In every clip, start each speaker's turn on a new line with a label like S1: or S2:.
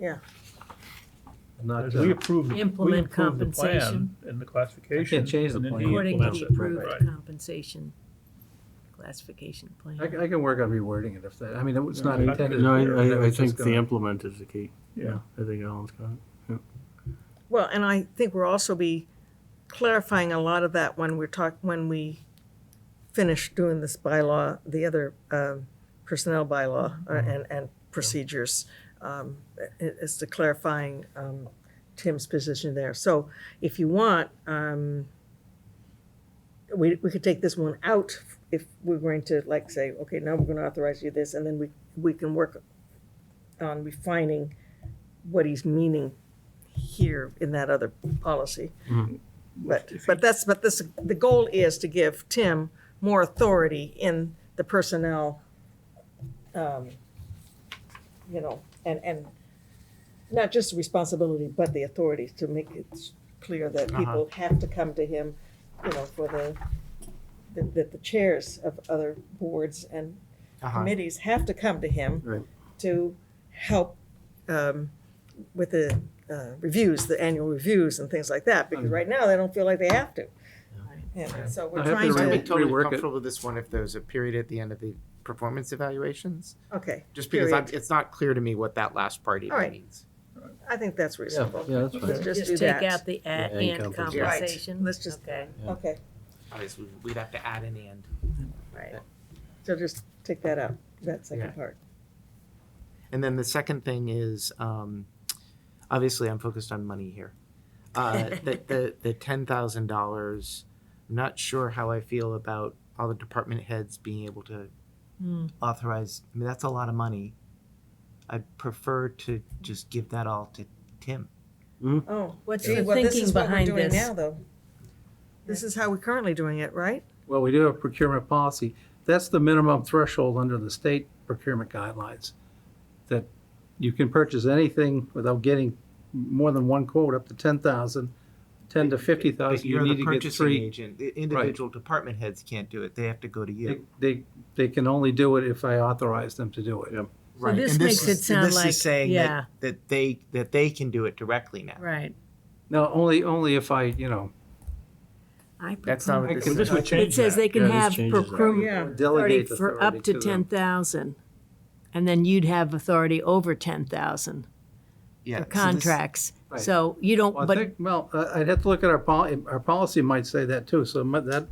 S1: Yeah.
S2: Not,
S3: Because
S2: uh,
S3: we approved, we
S4: Implement
S3: approved the plan
S4: compensation.
S3: and the classification.
S2: change the
S3: and then
S2: plan.
S3: he
S4: according to
S3: implements
S4: the
S3: it.
S4: approved
S3: Right.
S4: compensation classification plan.
S2: I, I can work on rewording it if that, I mean, it's not
S3: Yeah.
S2: intended.
S3: No,
S5: No,
S2: to- that
S5: I, I, I
S2: was just
S5: think the
S2: gonna-
S5: implement is the key.
S3: Yeah.
S5: I think Alan's got it.
S1: Well, and I think we'll also be clarifying a lot of that when we're talk, when we finish doing this bylaw, the other um, personnel bylaw uh, and, and procedures. um, i- Is to clarifying um, Tim's position there. So if you want, um, we, we could take this one out if we're going to like say, okay, now we're going to authorize you this, and then we, we can work on refining what he's meaning here in that other policy. But, but that's, but this, the goal is to give Tim more authority in the personnel, um, you know, and, and not just responsibility, but the authority to make it clear that people have to come to him, you know, for the, that, that the chairs of other boards and
S2: Uh-huh.
S1: committees have to come to him
S5: Right.
S1: to help um, with the uh, reviews, the annual reviews and things like that, because right now they don't feel like they have to. And so we're
S2: Mm-hmm. I
S1: trying
S2: have to
S6: So I'd be
S2: re-
S1: to,
S6: totally
S2: rework it.
S6: comfortable with this one if there's a period at the end of the performance evaluations,
S1: okay,
S6: just because I'm, it's not clear to me what that last part
S1: All
S6: even
S1: right.
S6: means.
S1: I think that's reasonable.
S2: Yeah, that's
S1: Let's
S2: fine.
S1: just do
S4: Just take out
S1: that.
S4: the at
S5: Yeah,
S4: and
S5: and compensation.
S1: Right.
S4: compensation.
S1: Let's just-
S4: Okay.
S1: Okay,
S6: Obviously, we'd have to add an and.
S1: right. So just take that out, that
S6: Yeah.
S1: second part.
S6: And then the second thing is, um, obviously, I'm focused on money here. Uh, the, the, the ten thousand dollars, I'm not sure how I feel about all the department heads being able to
S4: Hmm.
S6: authorize, I mean, that's a lot of money. I'd prefer to just give that all to Tim.
S2: Mm-hmm.
S1: Oh,
S4: What's
S1: gee,
S4: the
S1: well, this
S4: thinking
S1: is what we're
S4: behind
S1: doing
S4: this?
S1: now, though. This is how we're currently doing it, right?
S2: Well, we do have procurement policy. That's the minimum threshold under the state procurement guidelines. That you can purchase anything without getting more than one quote, up to ten thousand, ten to fifty
S6: But
S2: thousand, you
S6: you're
S2: need
S6: the
S2: to get
S6: purchasing
S2: three.
S6: agent. The Individual department heads can't do it. They have to go to
S2: They,
S6: you.
S2: they, they can only do it if I authorize them to do it.
S5: Yep.
S4: Right. this makes it
S6: is-
S4: sound
S6: this
S4: like-
S6: is saying
S4: yeah.
S6: that, that they that they can do it directly now.
S4: Right.
S2: No, only, only if I, you know,
S4: I
S6: That's not what
S4: propose-
S2: This
S6: this is.
S2: would
S4: It says they can
S5: Yeah, this
S4: have
S5: changes that.
S4: procurement
S1: Yeah.
S2: delegate
S4: authority
S2: the
S4: for up
S2: authority
S4: to
S2: to them.
S4: ten thousand. And then you'd have authority over ten thousand
S6: yeah,
S4: for
S6: so this-
S4: contracts.
S2: Right.
S4: So you don't,
S2: Well, I
S4: but
S2: think, well, I- I'd have to look at our pol, our policy might say that too, so mi- that,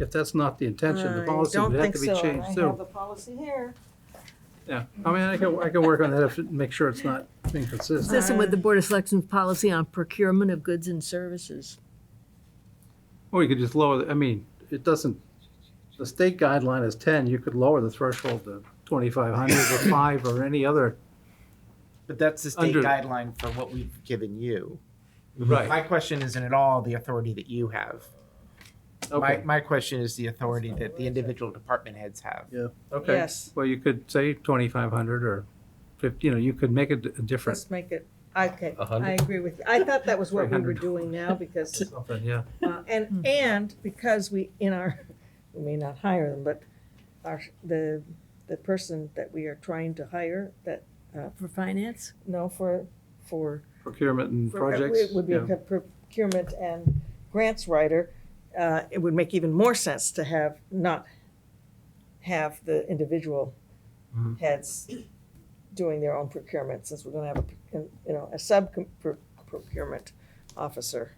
S2: if that's not the intention, the
S1: I
S2: policy
S1: don't
S2: would have
S1: think
S2: to be
S1: so.
S2: changed
S1: I have
S2: too.
S1: the policy here.
S2: Yeah, I mean, I can, I can work on that if, make sure it's not inconsistent.
S4: consistent with the Board of Selectmen's policy on procurement of goods and services.
S2: Or you could just lower, the- I mean, it doesn't, the state guideline is ten, you could lower the threshold to twenty-five hundred or five or any other.
S6: but that's the state
S2: Under-
S6: guideline for what we've given you. My
S2: Right.
S6: question isn't at all the authority that you have. My,
S2: Okay,
S6: my question is the authority that the individual department heads have.
S2: okay.
S1: Yes,
S2: Well, you could say twenty-five hundred or fifty, you know, you could make it a difference.
S1: let's make it, okay,
S2: A
S1: I
S2: hundred?
S1: agree with you. I thought that was what we were
S2: 300.
S1: doing now because
S2: Something, yeah.
S1: Uh, And, and because we, in our, we may not hire them, but our, the, the person that we are trying to hire, that,
S4: For finance?
S1: no, for, for.
S2: Procurement and
S1: for-
S2: projects.
S1: It would be
S2: yeah.
S1: a procurement and grants writer. Uh, It would make even more sense to have, not have the individual
S2: Mhm.
S1: heads doing their own procurement, since we're gonna have a, you know, a sub procurement officer.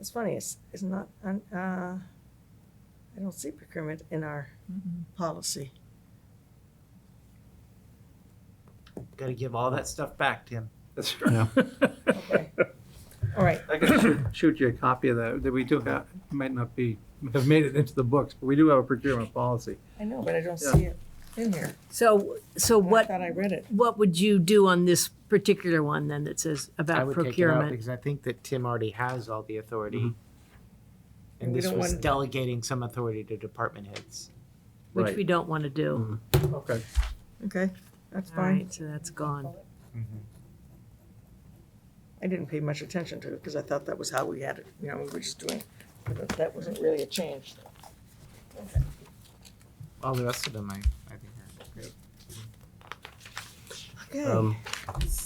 S1: It's funny, it's, it's not, un- uh, I don't see procurement in our policy.
S6: Got to give all that stuff back, Tim.
S2: That's right.
S1: Okay. All right,
S2: I can shoot- shoot you a copy of that, that we do have, might not be, have made it into the books, but we do have a procurement policy.
S1: I know, but I don't
S2: Yeah.
S1: see it in here.
S4: So, so
S1: I
S4: what,
S1: thought I read it.
S4: what would you do on this particular one then that says
S6: I
S4: about
S6: would take it out
S4: procurement?
S6: because I think that Tim already has all the authority.
S1: And
S6: And
S1: we
S6: this
S1: don't
S6: was
S1: wanna-
S6: delegating some authority to department heads.
S4: Which
S2: Right.
S4: we don't want to do.
S2: Okay.
S1: Okay, that's
S4: All
S1: fine.
S4: right, so that's gone.
S1: I didn't pay much attention to it because I thought that was how we had it, you know, we were just doing, but that wasn't really a change.
S6: All the rest of them, I, I think are great.
S1: Okay,
S5: Um,